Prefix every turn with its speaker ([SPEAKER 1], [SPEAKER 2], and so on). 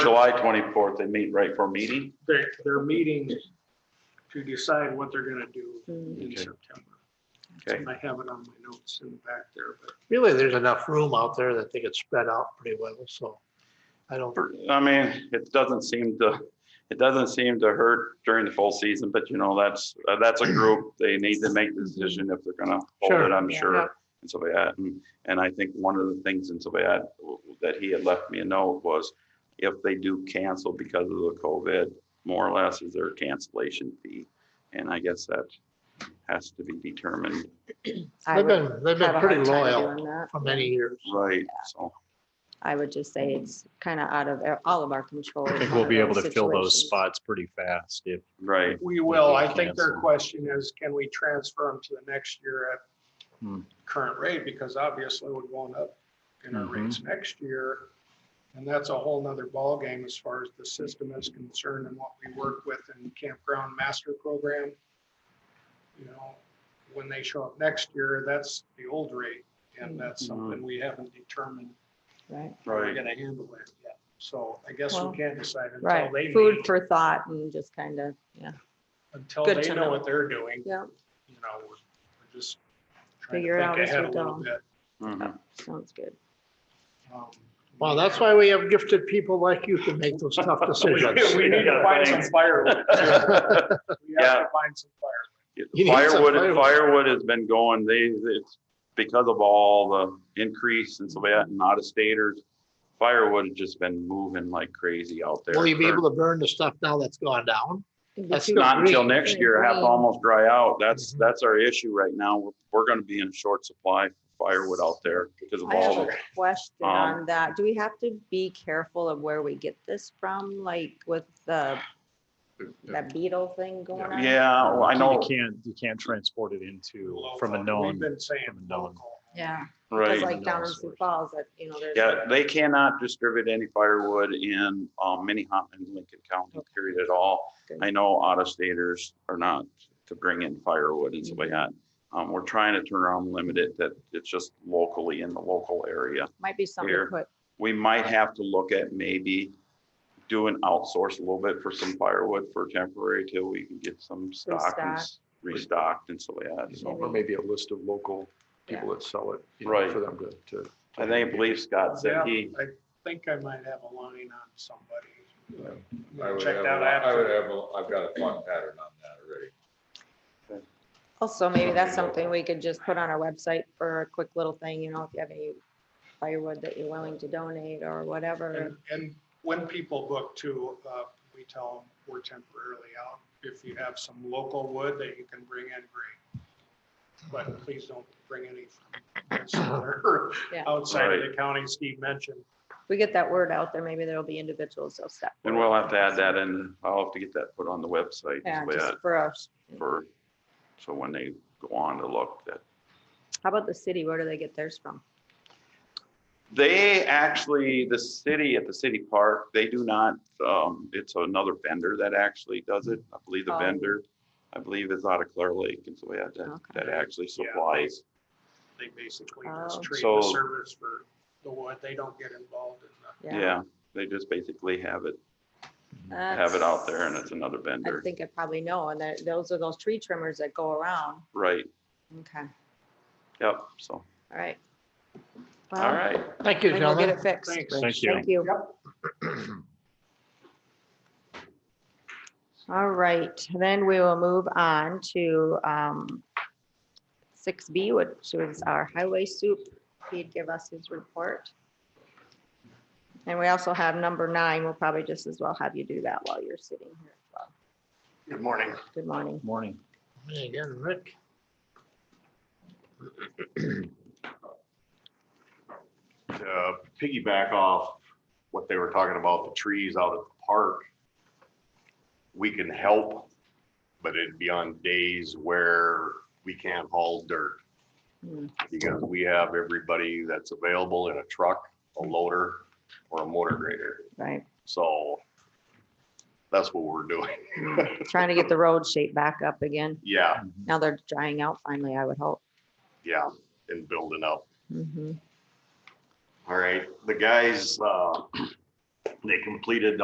[SPEAKER 1] July twenty-fourth, they meet right for a meeting?
[SPEAKER 2] They're, they're meeting to decide what they're gonna do in
[SPEAKER 3] Mm,
[SPEAKER 1] Okay.
[SPEAKER 2] September.
[SPEAKER 1] Okay.
[SPEAKER 2] I have it on my notes in the back there, but
[SPEAKER 4] Really, there's enough room out there that they could spread out pretty well, so I don't,
[SPEAKER 1] I mean, it doesn't seem to, it doesn't seem to hurt during the full season, but you know, that's, uh, that's a group. They need to make the decision if they're gonna hold it,
[SPEAKER 4] Sure.
[SPEAKER 1] I'm
[SPEAKER 3] Yeah.
[SPEAKER 1] sure. And so they had, and- and I think one of the things in so they had, that he had left me a note was if they do cancel because of the COVID, more or less is their cancellation fee. And I guess that has to be determined,
[SPEAKER 3] I
[SPEAKER 4] they've
[SPEAKER 3] would
[SPEAKER 4] been, they've
[SPEAKER 3] have
[SPEAKER 4] been
[SPEAKER 3] a
[SPEAKER 4] pretty
[SPEAKER 3] hard time
[SPEAKER 4] loyal
[SPEAKER 3] doing that.
[SPEAKER 4] for many years.
[SPEAKER 1] right? So,
[SPEAKER 3] I would just say it's kind of out of our- all of our control.
[SPEAKER 5] I think
[SPEAKER 3] one
[SPEAKER 5] we'll
[SPEAKER 3] of
[SPEAKER 5] be able
[SPEAKER 3] those
[SPEAKER 5] to fill those
[SPEAKER 3] situations.
[SPEAKER 5] spots pretty fast if,
[SPEAKER 1] right,
[SPEAKER 2] we will. I think their
[SPEAKER 5] Cancel.
[SPEAKER 2] question is, can we transfer them to the next year at
[SPEAKER 5] Hmm.
[SPEAKER 2] current rate? Because obviously we're going up in our
[SPEAKER 5] Mhm.
[SPEAKER 2] rates next year. And that's a whole nother ballgame as far as the system is concerned and what we work with in campground master program. You know, when they show up next year, that's the old rate
[SPEAKER 3] Mm-hmm.
[SPEAKER 2] and that's something we haven't determined
[SPEAKER 3] Right,
[SPEAKER 2] how we're
[SPEAKER 1] right.
[SPEAKER 2] gonna handle it yet. So I guess
[SPEAKER 3] Well,
[SPEAKER 2] we can't decide until they
[SPEAKER 3] right. Food
[SPEAKER 2] meet,
[SPEAKER 3] for thought and just kind of, yeah,
[SPEAKER 2] until
[SPEAKER 3] good
[SPEAKER 2] they
[SPEAKER 3] to
[SPEAKER 2] know
[SPEAKER 3] know.
[SPEAKER 2] what they're doing,
[SPEAKER 3] yeah,
[SPEAKER 2] you know, we're we're just trying
[SPEAKER 3] Figure it
[SPEAKER 2] to
[SPEAKER 3] out
[SPEAKER 2] think
[SPEAKER 3] as
[SPEAKER 2] ahead
[SPEAKER 3] we
[SPEAKER 2] a little
[SPEAKER 3] go.
[SPEAKER 2] bit.
[SPEAKER 1] Mhm.
[SPEAKER 3] sounds good.
[SPEAKER 2] Um,
[SPEAKER 4] Well, that's why we have gifted people like you to make those tough
[SPEAKER 2] We
[SPEAKER 4] decisions.
[SPEAKER 2] we need to find some firewood. We have
[SPEAKER 1] Yeah.
[SPEAKER 2] to find some firewood.
[SPEAKER 1] Yeah,
[SPEAKER 4] You need some
[SPEAKER 1] Firewood,
[SPEAKER 4] firewood.
[SPEAKER 1] firewood has been going, they, it's because of all the increase and so that, and out of staters. Firewood has just been moving like crazy out there.
[SPEAKER 4] Will you be able to burn the stuff now that's gone down? That's
[SPEAKER 3] Because-
[SPEAKER 1] Not until
[SPEAKER 4] Green.
[SPEAKER 1] next year, have to
[SPEAKER 3] Green.
[SPEAKER 1] almost dry out. That's,
[SPEAKER 4] Mhm.
[SPEAKER 1] that's our issue right now. We're- We're gonna be in short supply of firewood out there because of
[SPEAKER 3] I have
[SPEAKER 1] all
[SPEAKER 3] a
[SPEAKER 1] the,
[SPEAKER 3] question
[SPEAKER 1] Um,
[SPEAKER 3] on that. Do we have to be careful of where we get this from, like with the, that beetle thing going on?
[SPEAKER 1] yeah,
[SPEAKER 5] Uh,
[SPEAKER 1] well, I know,
[SPEAKER 5] you can't, you can't transport it into from
[SPEAKER 2] Local.
[SPEAKER 5] a
[SPEAKER 2] We've
[SPEAKER 5] known.
[SPEAKER 2] been saying
[SPEAKER 5] from a known.
[SPEAKER 2] local.
[SPEAKER 3] Yeah, because
[SPEAKER 1] right.
[SPEAKER 3] like down in Sioux Falls, that, you know, there's.
[SPEAKER 1] Yeah, they cannot distribute any firewood in, um, Minnehaha and Lincoln County, period at all.
[SPEAKER 3] Good.
[SPEAKER 1] I know out of staters are not to bring in firewood and stuff like that. Um, we're trying to turn around, and limit it, that it's just locally in the local area.
[SPEAKER 3] Might be something to
[SPEAKER 1] here.
[SPEAKER 3] put,
[SPEAKER 1] We might have to look at maybe doing outsource a little bit for some firewood for temporary till we can get some stock and s- restocked and so like that. So
[SPEAKER 6] Or maybe a list of local people that sell it. you know,
[SPEAKER 1] Right.
[SPEAKER 6] For them to, to.
[SPEAKER 1] I think, I believe Scott said
[SPEAKER 2] Yeah,
[SPEAKER 1] he,
[SPEAKER 2] I think I might have a line on somebody. I'm
[SPEAKER 7] I
[SPEAKER 2] gonna
[SPEAKER 7] would
[SPEAKER 2] Check
[SPEAKER 7] have, a-
[SPEAKER 2] that
[SPEAKER 7] I would
[SPEAKER 2] out.
[SPEAKER 7] have, a- I've got a thought pattern on that already.
[SPEAKER 3] also maybe that's something we could just put on our website for a quick little thing, you know, if you have any firewood that you're willing to donate or whatever.
[SPEAKER 2] And, and when people book too, uh, we tell them we're temporarily out. If you have some local wood that you can bring in, great. But please don't bring any from somewhere
[SPEAKER 3] Yeah.
[SPEAKER 2] outside of the county Steve mentioned.
[SPEAKER 3] We get that word out there, maybe there'll be individuals that'll step.
[SPEAKER 1] and
[SPEAKER 3] forward.
[SPEAKER 1] we'll have to add that in, I'll have to get that put on the website
[SPEAKER 3] Yeah,
[SPEAKER 1] and so
[SPEAKER 3] just
[SPEAKER 1] that
[SPEAKER 3] for us.
[SPEAKER 1] for, so when they go on to look that
[SPEAKER 3] How about the city? Where do they get theirs from?
[SPEAKER 1] They actually, the city at the city park, they do not, um, it's another vendor that actually does it. I believe the
[SPEAKER 3] Oh.
[SPEAKER 1] vendor, I believe is out of Clear Lake and so we had that,
[SPEAKER 3] Okay.
[SPEAKER 1] that actually
[SPEAKER 2] Yeah.
[SPEAKER 1] supplies.
[SPEAKER 2] They basically just
[SPEAKER 3] Oh.
[SPEAKER 2] trade
[SPEAKER 1] So-
[SPEAKER 2] the service for the wood. They don't get involved in the,
[SPEAKER 1] Yeah, they just basically have it,
[SPEAKER 3] That's-
[SPEAKER 1] have it out there and it's another
[SPEAKER 3] I
[SPEAKER 1] vendor,
[SPEAKER 3] think I probably know, and that, those are those tree trimmers that go around.
[SPEAKER 1] right?
[SPEAKER 3] Okay, all
[SPEAKER 1] Yep, so,
[SPEAKER 3] right.
[SPEAKER 1] all right.
[SPEAKER 4] Thank you,
[SPEAKER 3] And we'll get
[SPEAKER 4] gentlemen.
[SPEAKER 3] it fixed.
[SPEAKER 2] thanks.
[SPEAKER 5] Thank you.
[SPEAKER 3] Thank you. All right, then we will move on to um, six B, which was our highway soup. He'd give us his report. And we also have number nine. We'll probably just as well have you do that while you're sitting here as well.
[SPEAKER 6] Good morning.
[SPEAKER 3] Good morning.
[SPEAKER 5] Morning.
[SPEAKER 4] Hey, Again, Rick.
[SPEAKER 6] uh, piggyback off what they were talking about, the trees out at the park. We can help, but it'd be on days where we can't haul dirt.
[SPEAKER 3] Hmm.
[SPEAKER 6] Because we have everybody that's available in a truck, a loader, or a motor grader.
[SPEAKER 3] Right,
[SPEAKER 6] So that's what we're doing.
[SPEAKER 3] trying to get the road shape back up again.
[SPEAKER 6] Yeah,
[SPEAKER 3] Now they're drying out finally, I would hope. Mm-hmm.
[SPEAKER 6] yeah, and building up.
[SPEAKER 3] Mhm.
[SPEAKER 6] All right, the guys, uh, They completed